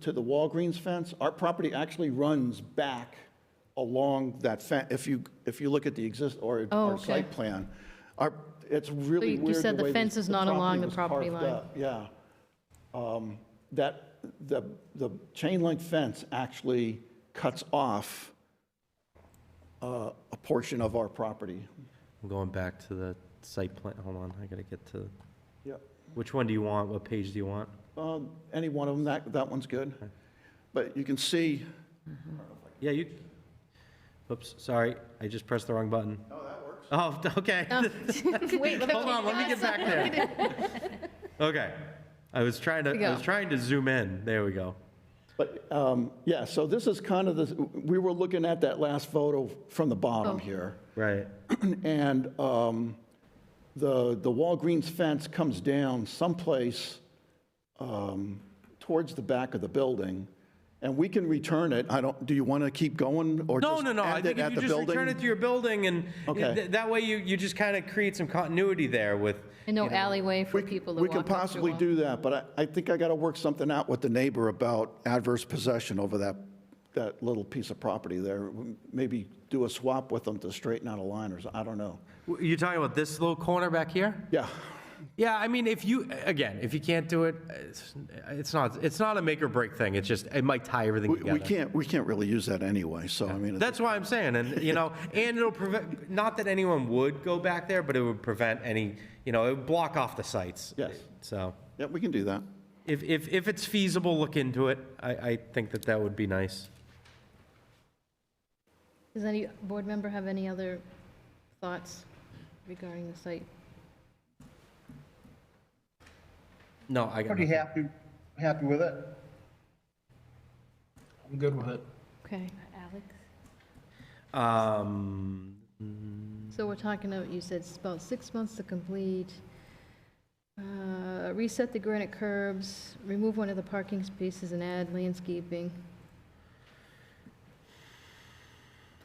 to the Walgreens fence, our property actually runs back along that fence. If you, if you look at the exist, or Oh, our okay. site plan, our, it's really you- you weird said the the way fence this- is not along the was property carved line. up, Yeah. Um, That, the, the chain link fence actually cuts off uh, a portion of our property. I'm going back to the site plan, hold on, I gotta get to, Yep. which one do you want, what page do you want? Um, Any one of them, that, that one's good. But you can see. Yeah, you, oops, sorry, I just pressed the wrong button. Oh, that works. Oh, okay. Wait, let Hold on, let me get back there. Okay, I was trying to, Here we I was go. trying to zoom in, there we go. But, um, yeah, so this is kind of the, we were looking at that last photo from the Oh. bottom here. Right, And um, the, the Walgreens fence comes down someplace um, towards the back of the building. And we can return it. I don't, do you want to keep going or no, just no, no, I end think it if at the you just return it building? to your building and, Okay. th- that way you, you just kind of create some continuity there with, And no alleyway for people to We walk can up to possibly walk. do that, but I, I think I got to work something out with the neighbor about adverse possession over that, that little piece of property there. Maybe do a swap with them to straighten out a line or, so- I don't know. you're talking about this little corner back here? Yeah, Yeah, I mean, if you, again, if you can't do it, it's, it's not, it's not a make or break thing. It's just, it might tie everything we we together. can't, we can't really use that anyway, so I mean. it's- That's why I'm saying, and, you know, and it'll prevent, not that anyone would go back there, but it would prevent any, you know, it would block off the sites. Yes. So Yeah, we can do that. if, if, if it's feasible, look into it. I, I think that that would be nice. Does any board member have any other thoughts regarding the site? No, I got Pretty nothing. happy, happy with it. I'm good with it. Okay, Alex? Um, so we're talking about, you said it's about six months to complete, Uh, reset the granite curbs, remove one of the parking spaces and add landscaping.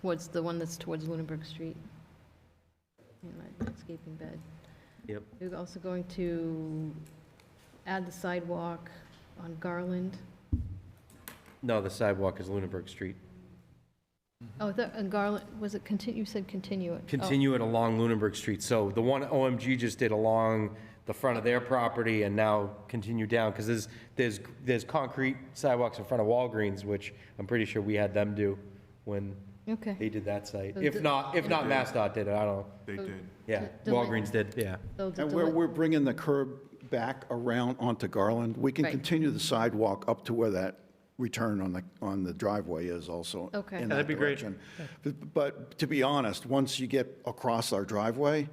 Towards the one that's towards Lunenburg Street. And that landscaping bed. Yep. We're also going to add the sidewalk on Garland. Mm-hmm. no, the sidewalk is Lunenburg Street. Oh, the, and Garland, was it continue, you said continue it? Oh, continue it along Lunenburg Street. So the one OMG just did along the front of their property and now continue down, because there's, there's, there's concrete sidewalks in front of Walgreens, which I'm pretty sure we had them do when they Okay. did that site. So If the- not, if not, MassDOT did it, I don't know. They did. Yeah, The- the- Walgreens did, yeah. So the And where deli- we're bringing the curb back around onto Garland, we can Right. continue the sidewalk up to where that return on the, on the driveway is also. Okay. in Yeah, that'd that be great. direction. But- But to be honest, once you get across our driveway,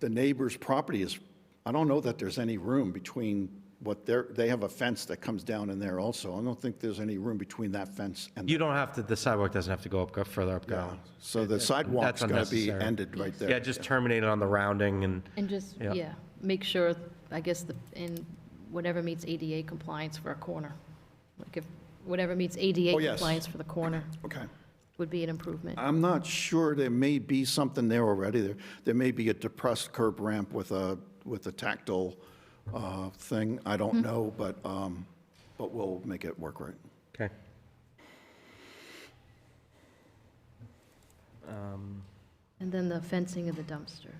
the neighbor's property is, I don't know that there's any room between what they're, they have a fence that comes down in there also. I don't think there's any room between that fence and, You don't have to, the sidewalk doesn't have to go up, go further up Garland. so the sidewalk's going to be unnecessary. ended right there. Yeah, just terminate it on the rounding and, And just, Yeah. yeah, make sure, I guess, the in whatever meets ADA compliance for a corner. Like if, whatever meets ADA Oh, yes. Uh, compliance for the corner Okay. would be an improvement. I'm not sure, there may be something there already. There, there may be a depressed curb ramp with a, with a tactile uh, thing, I don't know, but, um, but we'll make it work right. okay. And then the fencing of the dumpster.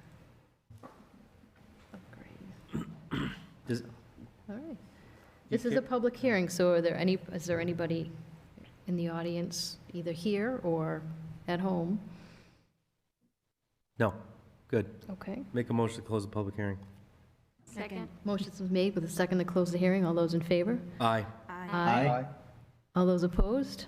Upgrade. Does- All right. This is a public hearing, so are there any, is there anybody in the audience, either here or at home? No, good. Okay. Make a motion to close the public hearing. Second. Motion's been made with a second to close the hearing. All those in favor? Aye. Aye. All those opposed?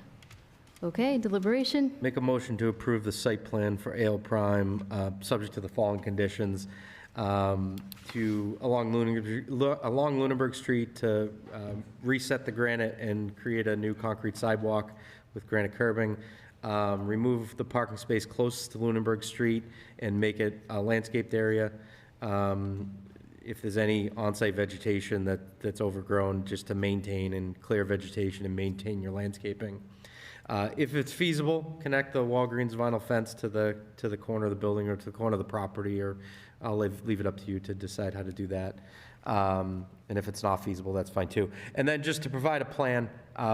Okay, deliberation. Make a motion to approve the site plan for Ale Prime, uh, subject to the following conditions, um, to, along Lunenburg, Lu- along Lunenburg Street, to um, reset the granite and create a new concrete sidewalk with granite curbing, um, remove the parking space closest to Lunenburg Street and make it a landscaped area. Um, If there's any on-site vegetation that, that's overgrown, just to maintain and clear vegetation and maintain your landscaping. Uh, If it's feasible, connect the Walgreens vinyl fence to the, to the corner of the building or to the corner of the property, or I'll leave, leave it up to you to decide how to do that. Um, And if it's not feasible, that's fine too. And then just to provide a plan, uh,